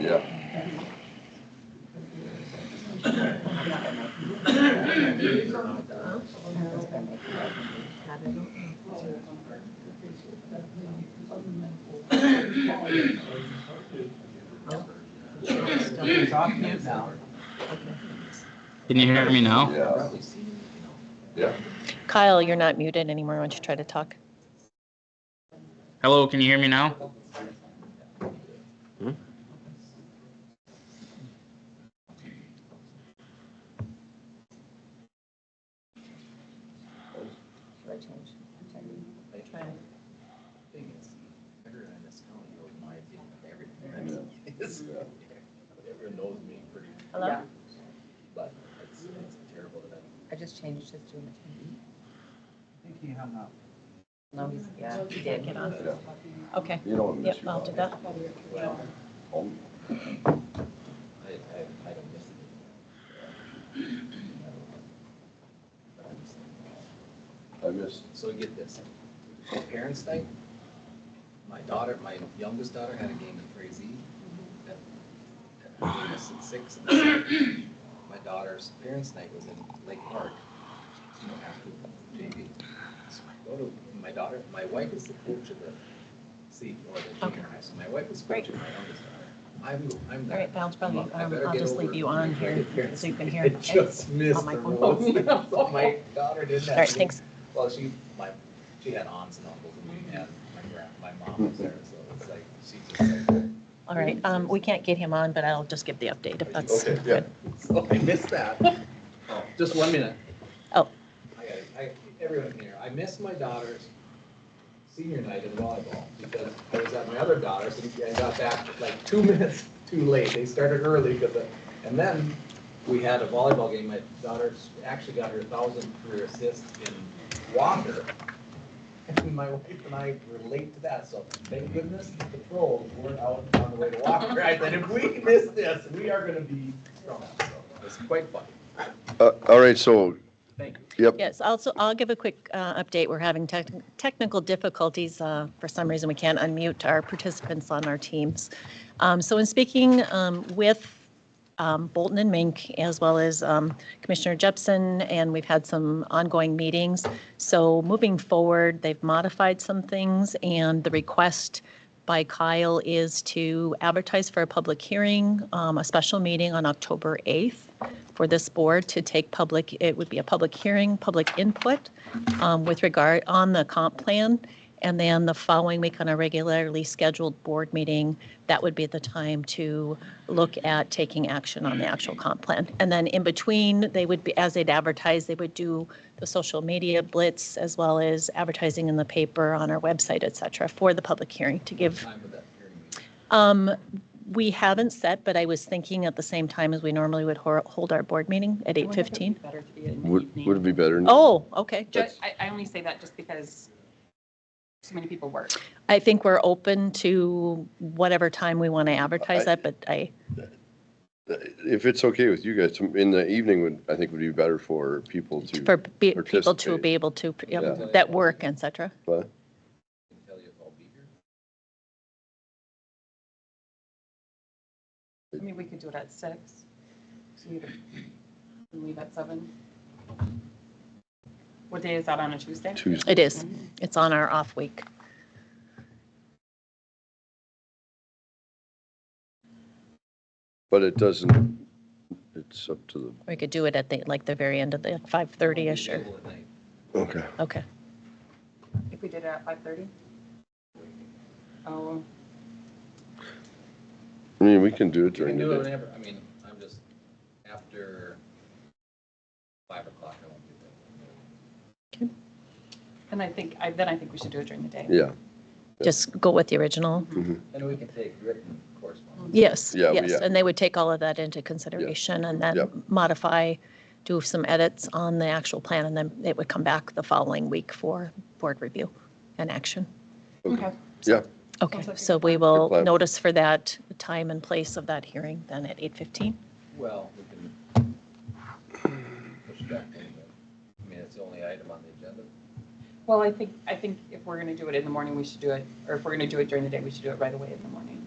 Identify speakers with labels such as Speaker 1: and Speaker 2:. Speaker 1: Yeah,
Speaker 2: Can you hear me now?
Speaker 1: yeah, yeah.
Speaker 3: Kyle, you're not muted anymore. Why don't you try to talk?
Speaker 2: Hello, can you hear me now?
Speaker 4: Everyone knows me pretty,
Speaker 3: Hello?
Speaker 4: but it's, it's terrible that I.
Speaker 5: I just changed his to an No, he's, yeah, he
Speaker 3: Can't
Speaker 5: did.
Speaker 3: get on.
Speaker 1: Yeah.
Speaker 3: Okay.
Speaker 1: You don't miss
Speaker 3: Yep,
Speaker 1: your
Speaker 3: I'll do that.
Speaker 4: Well,
Speaker 1: home.
Speaker 4: I, I, I don't miss it. But I'm just-
Speaker 1: I missed,
Speaker 4: So get this, parents' night, my daughter, my youngest daughter had a game in Crazy.
Speaker 3: Mm-hmm.
Speaker 4: at at her game was at six. and My daughter's parents' night was in Lake Park, you know, after JV. So I go to, my daughter, my wife is the coach of the C, or the junior high, so my wife was
Speaker 3: Great.
Speaker 4: coaching my youngest daughter. I'm, I'm
Speaker 3: All
Speaker 4: there.
Speaker 3: right, Bounce Brother,
Speaker 4: I
Speaker 3: um,
Speaker 4: better
Speaker 3: I'll
Speaker 4: get
Speaker 3: just leave
Speaker 4: over
Speaker 3: you on
Speaker 4: my
Speaker 3: here
Speaker 4: grandparents.
Speaker 3: so you can hear.
Speaker 4: I
Speaker 3: okay?
Speaker 4: just missed
Speaker 3: On my
Speaker 4: the
Speaker 3: phone.
Speaker 4: rules. So My daughter did that.
Speaker 3: All right, thanks.
Speaker 4: Well, she, my, she had aunts and uncles and and my grand, my mom was there, so it's like, she just like.
Speaker 3: All right, um, we can't get him on, but I'll just give the update if that's
Speaker 4: Okay,
Speaker 3: good.
Speaker 4: So I missed that. Oh, Just one minute.
Speaker 3: Oh.
Speaker 4: I got it. I, everyone here, I missed my daughter's senior night in volleyball because I was at my other daughter's and I got back like two minutes too late. They started early because of, and then we had a volleyball game. My daughter actually got her thousand career assist in Wander. And my wife and I relate to that, so thank goodness the trolls weren't out on the way to Wander. I said, if we miss this, we are gonna be thrown out. So It's quite funny.
Speaker 1: Uh, all right, so,
Speaker 4: Thank you.
Speaker 1: yep,
Speaker 3: Yes, also, I'll give a quick uh, update. We're having tech- technical difficulties. Uh, For some reason, we can't unmute our participants on our teams. Um, So in speaking um, with um, Bolton and Mink, as well as um, Commissioner Jepson, and we've had some ongoing meetings. So moving forward, they've modified some things, and the request by Kyle is to advertise for a public hearing, um, a special meeting on October 8th for this board to take public, it would be a public hearing, public input um, with regard, on the comp plan. And then the following week on a regularly scheduled board meeting, that would be the time to look at taking action on the actual comp plan. And then in between, they would be, as they'd advertise, they would do the social media blitz as well as advertising in the paper, on our website, et cetera, for the public hearing to give
Speaker 4: Time with that hearing meeting.
Speaker 3: um, we haven't set, but I was thinking at the same time as we normally would hor- hold our board meeting at eight fifteen.
Speaker 6: Better to be in the
Speaker 1: would, would it
Speaker 6: evening.
Speaker 1: be better? in-
Speaker 3: Oh, okay.
Speaker 6: Ju- I, I only say that just because so many people work.
Speaker 3: I think we're open to whatever time we want to advertise that, but I,
Speaker 1: If it's okay with you guys, in the evening would, I think would be better for people
Speaker 3: for
Speaker 1: to,
Speaker 3: be- people to
Speaker 1: Participate.
Speaker 3: be able to, you know,
Speaker 4: Yeah.
Speaker 3: that work, et cetera.
Speaker 1: but,
Speaker 4: can tell you if I'll be here.
Speaker 6: I mean, we could do it at six. so we could Leave at seven. What day is that on a Tuesday?
Speaker 1: Tuesday.
Speaker 3: It is. It's on our off week.
Speaker 1: but it doesn't, it's up to
Speaker 3: We could do it at the, like, the very end of the five thirty-ish or,
Speaker 4: Available at night.
Speaker 1: the, okay.
Speaker 3: okay.
Speaker 6: If we did it at five thirty? Oh,
Speaker 1: I mean, we can do it
Speaker 4: You
Speaker 1: during
Speaker 4: can do it
Speaker 1: the day.
Speaker 4: whenever, I mean, I'm just, after five o'clock, I won't be there.
Speaker 6: and I think, I, then I think we should do it during the day.
Speaker 1: Yeah,
Speaker 3: Just go with the original.
Speaker 4: And we can take written correspondence.
Speaker 3: Yes,
Speaker 1: Yeah, we-
Speaker 3: yes,
Speaker 1: yeah.
Speaker 3: and they would take all of that into consideration and
Speaker 1: Yep.
Speaker 3: then modify, do some edits on the actual plan, and then it would come back the following week for board review and action.
Speaker 6: Okay.
Speaker 1: yeah,
Speaker 3: Okay,
Speaker 6: Sounds like a
Speaker 3: so
Speaker 6: good
Speaker 3: we will
Speaker 1: plan.
Speaker 3: notice for that time and place of that hearing then at 8:15.
Speaker 4: Well, we can push it back a little bit. I mean, it's the only item on the agenda.
Speaker 6: Well, I think, I think if we're going to do it in the morning, we should do it, or if we're going to do it during the day, we should do it right away in the morning.